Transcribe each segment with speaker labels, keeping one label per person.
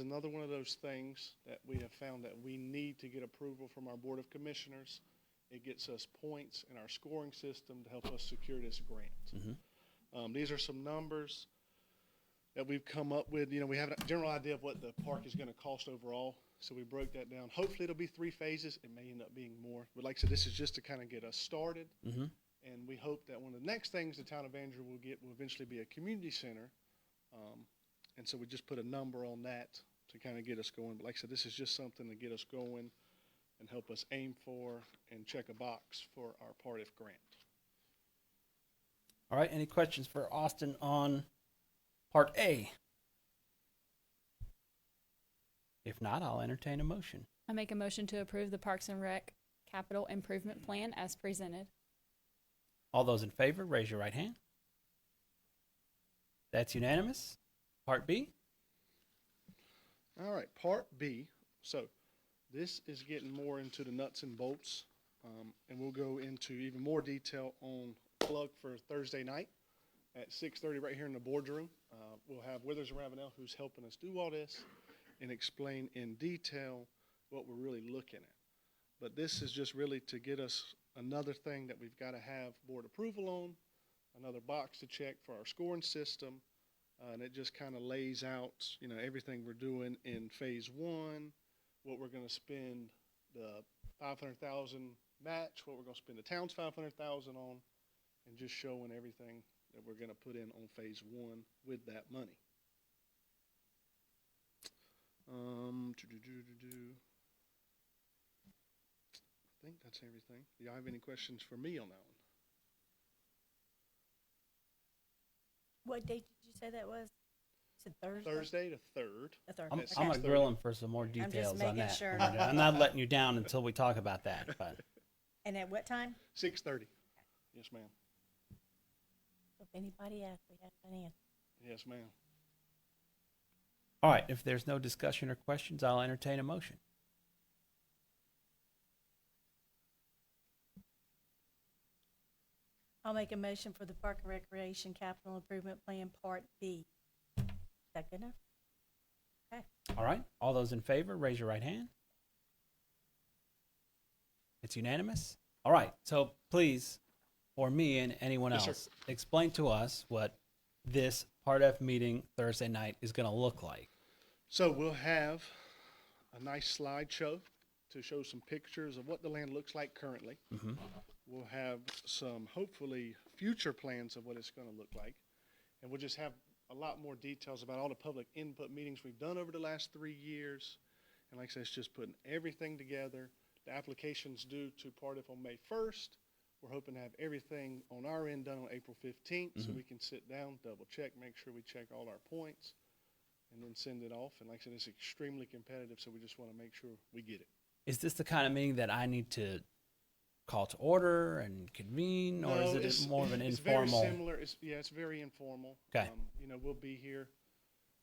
Speaker 1: Another one of those things that we have found that we need to get approval from our Board of Commissioners. It gets us points in our scoring system to help us secure this grant. Um, these are some numbers that we've come up with. You know, we have a general idea of what the park is gonna cost overall, so we broke that down. Hopefully, it'll be three phases. It may end up being more, but like I said, this is just to kind of get us started. And we hope that one of the next things the town of Andrew will get will eventually be a community center. Um, and so we just put a number on that to kind of get us going. But like I said, this is just something to get us going and help us aim for and check a box for our part if grant.
Speaker 2: All right, any questions for Austin on part A? If not, I'll entertain a motion.
Speaker 3: I make a motion to approve the Parks and Rec capital improvement plan as presented.
Speaker 2: All those in favor, raise your right hand. That's unanimous. Part B?
Speaker 1: All right, part B. So this is getting more into the nuts and bolts, um, and we'll go into even more detail on plug for Thursday night at 6:30 right here in the boardroom. Uh, we'll have Withers Ravenel, who's helping us do all this, and explain in detail what we're really looking at. But this is just really to get us another thing that we've got to have board approval on, another box to check for our scoring system. Uh, and it just kind of lays out, you know, everything we're doing in phase one, what we're going to spend the 500,000 match, what we're going to spend the town's 500,000 on, and just showing everything that we're going to put in on phase one with that money. Um, doo-doo-doo-doo-doo. I think that's everything. Do y'all have any questions for me on that one?
Speaker 4: What date did you say that was? You said Thursday?
Speaker 1: Thursday the third.
Speaker 4: The third.
Speaker 2: I'm,
Speaker 1: That's
Speaker 2: I'm
Speaker 4: Okay.
Speaker 2: gonna
Speaker 1: six
Speaker 2: grill
Speaker 1: thirty.
Speaker 2: him for some more
Speaker 4: just
Speaker 2: details on
Speaker 4: making
Speaker 2: that.
Speaker 4: sure.
Speaker 2: I'm not letting you down until we talk about that, but
Speaker 4: And at what time?
Speaker 1: Six thirty. Yes, ma'am.
Speaker 4: If anybody asks, we have an answer.
Speaker 1: Yes, ma'am.
Speaker 2: all right, if there's no discussion or questions, I'll entertain a motion.
Speaker 4: I'll make a motion for the Park and Recreation Capital Improvement Plan Part B. Is that good enough?
Speaker 2: All right, all those in favor, raise your right hand. It's unanimous. All right, so please, for me and anyone
Speaker 1: Yes, sir.
Speaker 2: else, explain to us what this Part F meeting Thursday night is going to look like.
Speaker 1: So we'll have a nice slideshow to show some pictures of what the land looks like currently.
Speaker 2: Mhm.
Speaker 1: We'll have some hopefully future plans of what it's going to look like. And we'll just have a lot more details about all the public input meetings we've done over the last three years. And like I said, it's just putting everything together. The application's due to Partif on May 1st. We're hoping to have everything on our end done on April 15th so we can sit down, double check, make sure we check all our points and then send it off. And like I said, it's extremely competitive, so we just want to make sure we get it.
Speaker 2: Is this the kind of meeting that I need to call to order and convene, or
Speaker 1: No,
Speaker 2: is
Speaker 1: it's-
Speaker 2: it more of an
Speaker 1: it's Very
Speaker 2: informal?
Speaker 1: similar. It's, yeah, it's very informal.
Speaker 2: 'Kay.
Speaker 1: Um, you know, we'll be here.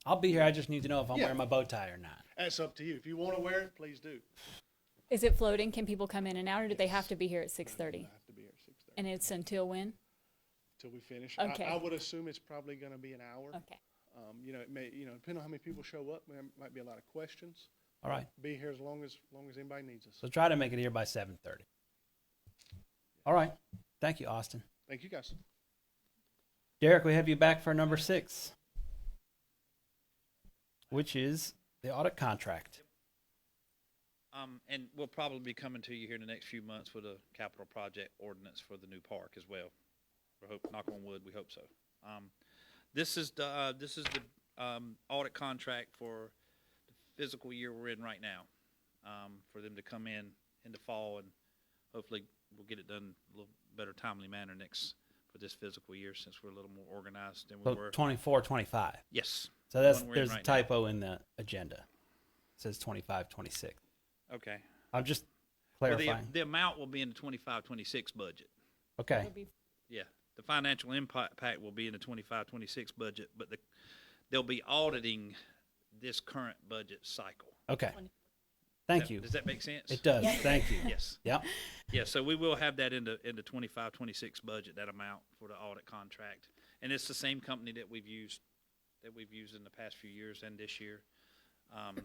Speaker 2: I'll be here. I just need to know if I'm
Speaker 1: Yeah.
Speaker 2: wearing my bow tie or not.
Speaker 1: That's up to you. If you want to wear it, please do.
Speaker 3: Is it floating? Can people come in and out, or do they have to be here at six thirty?
Speaker 1: I have to be here at six thirty
Speaker 3: And it's until when?
Speaker 1: till we finish.
Speaker 3: Okay.
Speaker 1: I, I would assume it's probably going to be an hour.
Speaker 3: Okay.
Speaker 1: Um, you know, it may. You know, depending on how many people show up, there might be a lot of questions.
Speaker 2: All right.
Speaker 1: Be here as long as long as anybody needs us.
Speaker 2: So try to make it here by 7:30. All right. Thank you, Austin.
Speaker 1: Thank you guys.
Speaker 2: Derek, we have you back for number six, which is the audit contract.
Speaker 5: Um, and we'll probably be coming to you here in the next few months with a capital project ordinance for the new park as well. We hope, knock on wood, we hope so. Um, this is the, uh, this is the, um, audit contract for the physical year we're in right now. Um, for them to come in in the fall and hopefully we'll get it done in a little better timely manner next, for this physical year since we're a little more organized than we
Speaker 2: So
Speaker 5: were.
Speaker 2: 24, 25.
Speaker 5: Yes.
Speaker 2: So that's
Speaker 5: one we're in
Speaker 2: there's a
Speaker 5: right now.
Speaker 2: typo in the agenda. It says 25, 26.
Speaker 5: Okay.
Speaker 2: I'm just
Speaker 5: Well, the-
Speaker 2: clarifying.
Speaker 5: The amount will be in the twenty-five, twenty-six budget.
Speaker 2: okay.
Speaker 3: It'll be-
Speaker 5: Yeah, the financial impact will be in the 25, 26 budget, but the, they'll be auditing this current budget cycle.
Speaker 2: Okay.
Speaker 4: Twenty-
Speaker 2: Thank
Speaker 5: That-
Speaker 2: you.
Speaker 5: Does that make sense?
Speaker 2: It does. Thank you.
Speaker 5: Yes.
Speaker 2: Yep.
Speaker 5: Yeah, so we will have that in the, in the 25, 26 budget, that amount for the audit contract. And it's the same company that we've used, that we've used in the past few years and this year. Um,